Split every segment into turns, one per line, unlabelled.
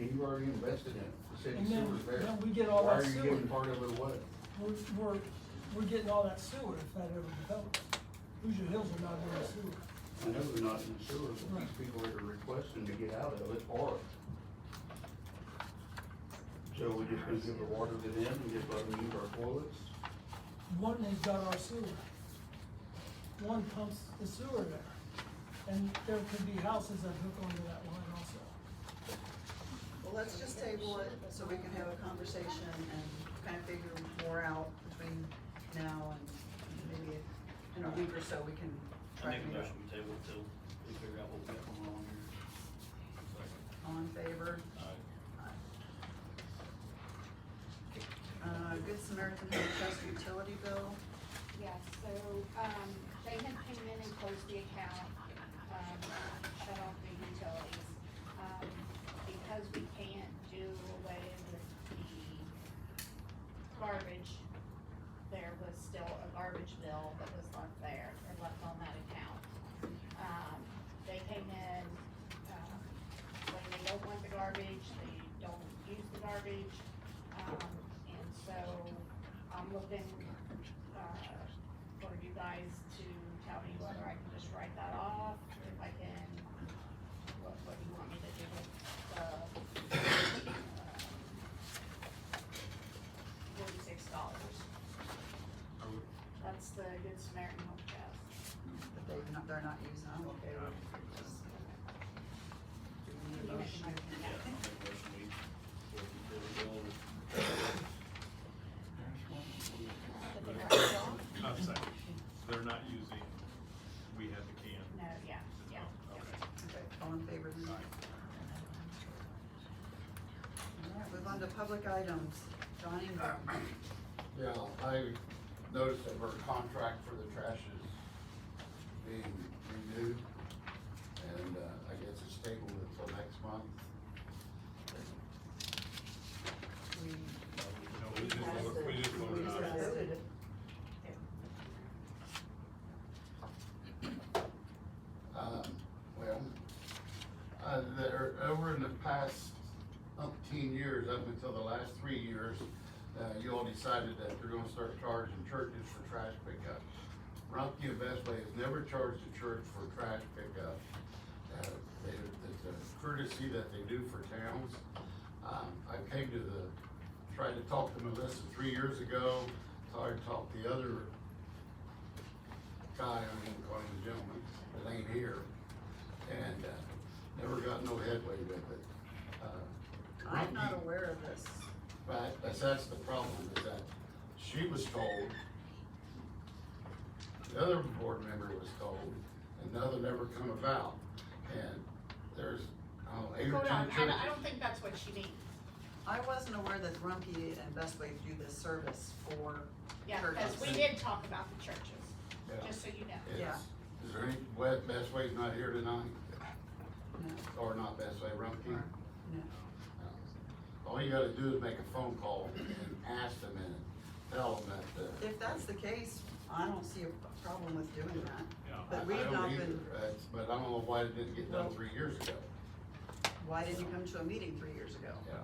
you've already invested in it, the city
And then-
sewer's there.
then we get all
Why
that
are you
sewer.
giving part of it away?
We're, we're, we're getting all that sewer if that ever develops. Hoosier Hills are not getting sewer.
I know they're not in the sewer, but
Right.
these people are requesting to get out of it or. So we're just gonna give the water to them and just let them use our toilets?
One has got our sewer. One pumps the sewer there. And there could be houses that hook onto that line also.
Well, let's just table it so we can have a conversation and kind of figure more out between now and maybe in a week or so, we can
I
try
make
to
a
do it.
motion we table till we figure out what we got going on here.
All in favor? Uh, Good Samaritan Home Trust utility bill,
Yes, so, um, they had came in and closed the account, um, shut off the utilities. Um, because we can't do away with the garbage, there was still a garbage bill that was left there and left on that account. Um, they came in, um, when they don't want the garbage, they don't use the garbage. Um, and so I'm looking, uh, for you guys to tell me whether I can just write that off, if I can, what, what you want me to do with the, uh, forty-six dollars. That's the Good Samaritan Home Trust.
that they not, they're not using, I'm okay with it. Just Do we need a motion?
Yeah, I make a motion we, we figure out what
That they write it off?
I'm saying, they're not using, we had the can. Oh.
No, yeah, yeah.
Okay.
Okay, all in favor? then? All right, move on to public items. John Ingram.
Yeah, I noticed that her contract for the trash is being renewed, and, uh, I guess it's tabled until next month.
We
No, we just voted, we just voted on
discussed
it.
it.
Um, well, uh, there, over in the past umpteen years, up until the last three years, uh, you all decided that you're gonna start charging churches for trash pickup. Rumpke and Best Way has never charged a church for trash pickup. Uh, they, it's a courtesy that they do for towns. Um, I came to the, tried to talk to Melissa three years ago, tried to talk to the other guy, I mean, calling the gentleman, that ain't here, and, uh, never got no headway with it. Uh,
I'm not
Rumpke-
aware of this.
Right, that's, that's the problem, is that she was told, the other board member was told, and the other never come about, and there's, I don't know, eight or
Hold on,
ten
I don't,
churches.
I don't think that's what she means.
I wasn't aware that Rumpke and Best Way do this service for
Yeah, because we
churches.
did talk about the churches,
Yeah.
just so you know.
Yeah.
It's- Is there any, Wa- Best Way's not here tonight,
No,
or not Best Way, Rumpke?
no.
All you gotta do is make a phone call and ask them and tell them that, uh.
If that's the case, I don't see a problem with doing that.
Yeah.
But
I- I
we've
don't
not
either,
been-
that's- But I don't know why it didn't get done three years ago,
Why didn't you come to a meeting three years ago?
yeah.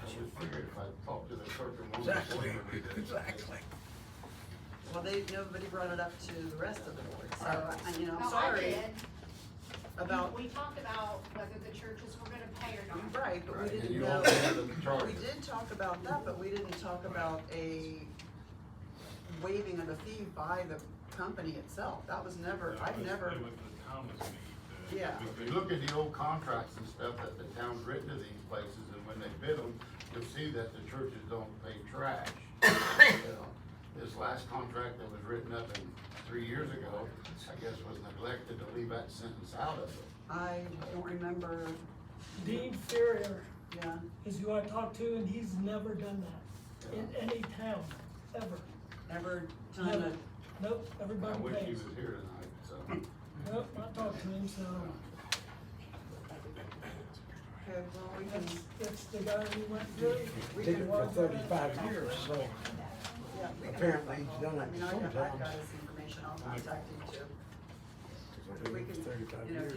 I would figure if I talked to the clerk and wanted to. Exactly.
Well, they, nobody brought it up to the rest of the board, so, I- you know, I'm
Oh, I
sorry
did.
about,
We talked about whether the churches were gonna pay or not.
right, but we
Right, and
didn't
you
know.
all had them
We
charged.
did talk about that, but we didn't talk about a waiving of the fee by the company itself. That was never,
It
I've
was-
never,
It was the Thomas meeting that.
Yeah.
If you look at the old contracts and stuff that the town's written to these places, and when they bid them, you'll see that the churches don't pay trash. You know, This last contract that was written up in three years ago, I guess was neglected to leave that sentence out of it.
I don't remember,
Dean Ferrier
yeah.
is who I talked to and he's never done that in any town, ever.
Ever done
Never.
it.
Nope,
I
everybody
wish he
pays.
was here tonight, so.
Nope, I talked to him, so
Okay, well, we can,
that's, that's the guy we went to.
we
Did
can
it for
work on it.
thirty-five years, so
Yeah, we can
Apparently
work on
he's done
I mean,
it
I- I've got
sometimes.
his information, I'll contact him too.
thirty-five
We can,
years.
you know,